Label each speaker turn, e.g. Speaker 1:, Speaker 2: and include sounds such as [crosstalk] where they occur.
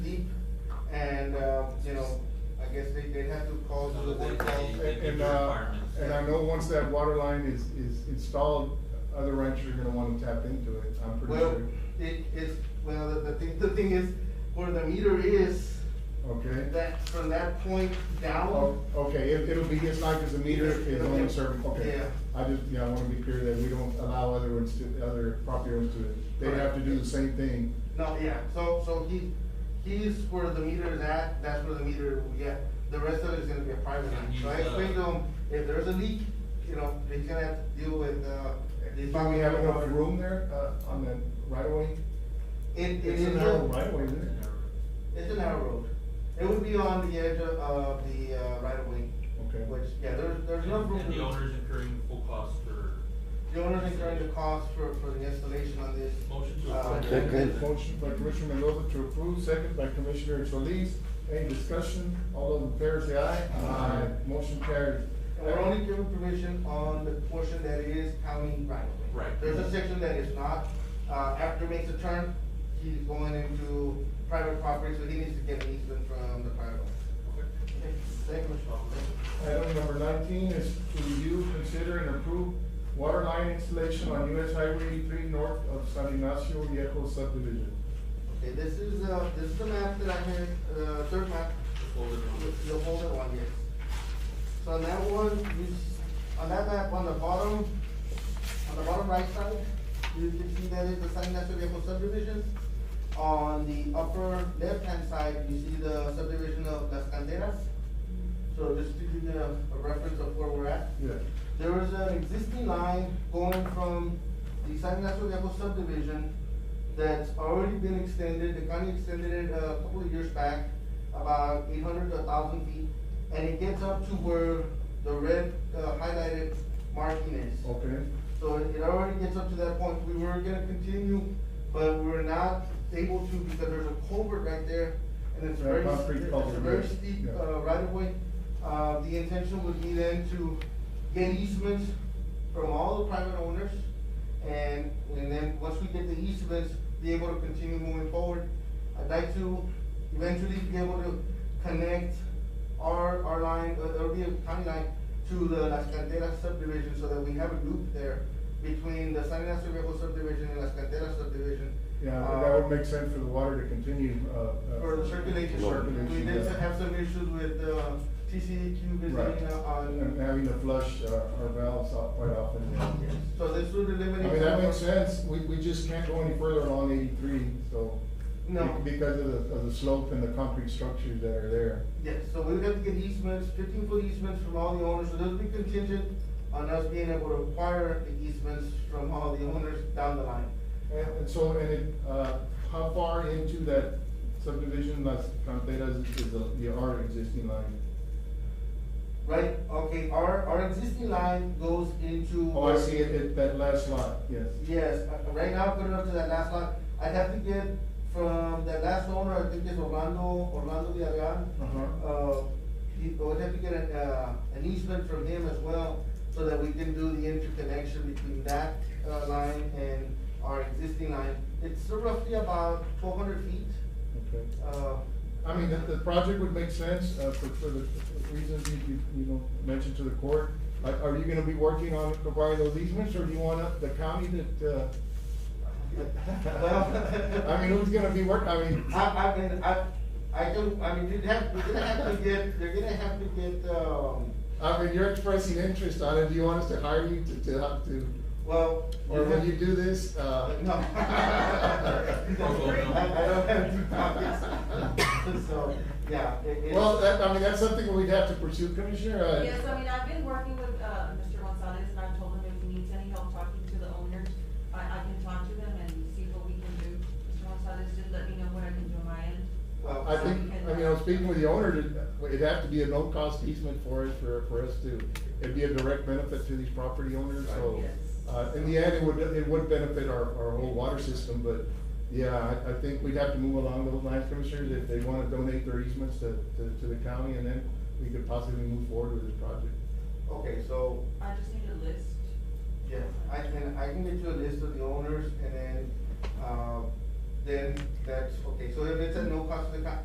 Speaker 1: um, I guess they, they'd have to call, so that they
Speaker 2: And-
Speaker 1: call.
Speaker 2: And, uh, and I know once that water line is, is installed, other ranchers are gonna wanna tap into it, I'm pretty
Speaker 1: Well,
Speaker 2: sure.
Speaker 1: it is, well, the, the thing, the thing is, where the meter is,
Speaker 2: Okay?
Speaker 1: that, from that point
Speaker 2: Oh,
Speaker 1: down,
Speaker 2: okay, it, it'll be just like as a meter is on a certain, okay.
Speaker 1: Yeah.
Speaker 2: I just, yeah, I wanna be clear that we don't allow other ones to, other property owners to, they have to do the same thing.
Speaker 1: no, yeah, so, so he, he's where the meter is at, that's where the meter will be at. The rest of it is gonna be a private line, so I explained to him, if there's a leak, you know, he's gonna have to deal with, uh. the-
Speaker 2: Do we have enough room there, uh, on that right of way?
Speaker 1: It, it
Speaker 2: It's
Speaker 1: is.
Speaker 2: a narrow right of way, isn't it?
Speaker 1: It's a narrow road. It would be on the edge of, of the, uh, right of way.
Speaker 2: Okay.
Speaker 1: Which, yeah, there's, there's no room.
Speaker 3: And the
Speaker 1: to-
Speaker 3: owner's incurring the full cost for.
Speaker 1: The owner's incurring the cost for, for the installation on this.
Speaker 3: Motion to
Speaker 1: Uh,
Speaker 3: approve.
Speaker 4: Second.
Speaker 2: Motion by Commissioner Mendoza to approve, second by Commissioner Solis. Any discussion? All those in favor say aye.
Speaker 1: Aye.
Speaker 2: Motion carries.
Speaker 1: And we're only giving permission on the portion that is county right of way.
Speaker 3: Right.
Speaker 1: There's a section that is not, uh, after makes a turn, he's going into private property, so he needs to get an easement from the private. Okay, Thank you, Mr. Chairman.
Speaker 2: Item number nineteen is to review, consider, and approve water line installation on US Highway eighty-three north of San Ignacio Viejo subdivision.
Speaker 1: Okay, this is, uh, this is the map that I had, uh, third map.
Speaker 3: folded one.
Speaker 1: The folded one, yes. So on that one, you, s- on that map, on the bottom, on the bottom right side, you can see that is the San Ignacio Viejo subdivision. On the upper left-hand side, you see the subdivision of Las Canderas. So just to give you a, a reference of where we're at.
Speaker 2: Yeah.
Speaker 1: There is an existing line going from the San Ignacio Viejo subdivision that's already been extended, the county extended it a couple of years back, about eight hundred to thousand feet, and it gets up to where the red uh, highlighted marking is.
Speaker 2: Okay,
Speaker 1: So it it already gets up to that point, we were gonna continue, but we were not able to because there's a culvert right there, and it's very,
Speaker 2: Right, concrete
Speaker 1: it's a
Speaker 2: culvert,
Speaker 1: very
Speaker 2: yeah,
Speaker 1: steep,
Speaker 2: yeah.
Speaker 1: uh, right of way. Uh, the intention would be then to get easements from all the private owners, and, and then, once we get the easements, be able to continue moving forward. I'd like to eventually be able to connect our, our line, uh, there'll be a county line to the Las Canteras subdivision, so that we have a loop there between the San Ignacio Viejo subdivision and Las Canteras subdivision.
Speaker 2: yeah,
Speaker 1: Uh,
Speaker 2: that would make sense for the water to continue, uh. uh,
Speaker 1: For the circulation,
Speaker 2: Circulation,
Speaker 1: we did
Speaker 2: yeah.
Speaker 1: have some issues with, uh, TCEQ
Speaker 2: Right,
Speaker 1: visiting uh,
Speaker 2: and
Speaker 1: on,
Speaker 2: having to flush uh, our valves out quite often.
Speaker 1: so this would
Speaker 2: I
Speaker 1: eliminate.
Speaker 2: mean, that makes
Speaker 1: some of-
Speaker 2: sense, we, we just can't go any further along eighty-three, so.
Speaker 1: No.
Speaker 2: be- Because of the, of the slope and the concrete structures that are there.
Speaker 1: Yes, so we would have to get easements, fifteen foot easements from all the owners, so those would be contingent on us being able to acquire the easements from all the owners down the line.
Speaker 2: And, and so, and it, uh, how far into that subdivision, Las Canteras, is the, the our existing line?
Speaker 1: Right, okay, our, our existing line goes into.
Speaker 2: Oh, I see it, it, that last lot, yes.
Speaker 1: Yes, uh, right now, put it up to that last lot, I'd have to get from that last owner, I think it's Orlando, Orlando Villarreal.
Speaker 2: Uh-huh.
Speaker 1: Uh, he, I would have to get an, uh, an easement from him as well, so that we can do the interconnection between that, uh, line and our existing line. It's roughly about twelve hundred feet,
Speaker 2: Okay.
Speaker 1: uh,
Speaker 2: I mean, the,
Speaker 1: [laughs]
Speaker 2: the project would make sense, uh, for, for the reasons you, you, you know, mentioned to the court. Are, are you gonna be working on providing those easements, or do you want uh, the county that, uh?
Speaker 1: Well-
Speaker 2: [laughs] I mean, who's gonna be work, I mean.
Speaker 1: I, I mean, I, I don't, I mean, you'd have, we're gonna have to get, they're gonna have to get, um,
Speaker 2: I mean, you're expressing interest on it, do you want us to hire you to, to have to,
Speaker 1: well.
Speaker 2: or when you do this, uh?
Speaker 1: No. I, I don't have deep pockets, so, yeah, it, it's.
Speaker 2: Well, that, I mean, that's something we'd have to pursue, Commissioner, uh.
Speaker 5: Yes, I mean, I've been working with, uh, Mr. Gonzalez, and I've told him if he needs any help talking to the owners, I, I can talk to them and see what we can do. Mr. Gonzalez, just let me know what I can do on my end.
Speaker 1: Well,
Speaker 2: Uh, I think, I mean, I was speaking with the owner, it'd- it'd have to be a no-cost easement for us, for, for us to, it'd be a direct benefit to these property owners, so.
Speaker 5: Yes.
Speaker 2: Uh, in the end, it would, it would benefit our, our whole water system, but, yeah, I, I think we'd have to move along those lines, Commissioners, if they wanna donate their easements to, to, to the county, and then we could possibly move forward with this project.
Speaker 1: Okay, so,
Speaker 5: I just need a list.
Speaker 1: yeah, I can, I can get you a list of the uh, owners and then, um, then that's, okay, so if it's a no cost to the county,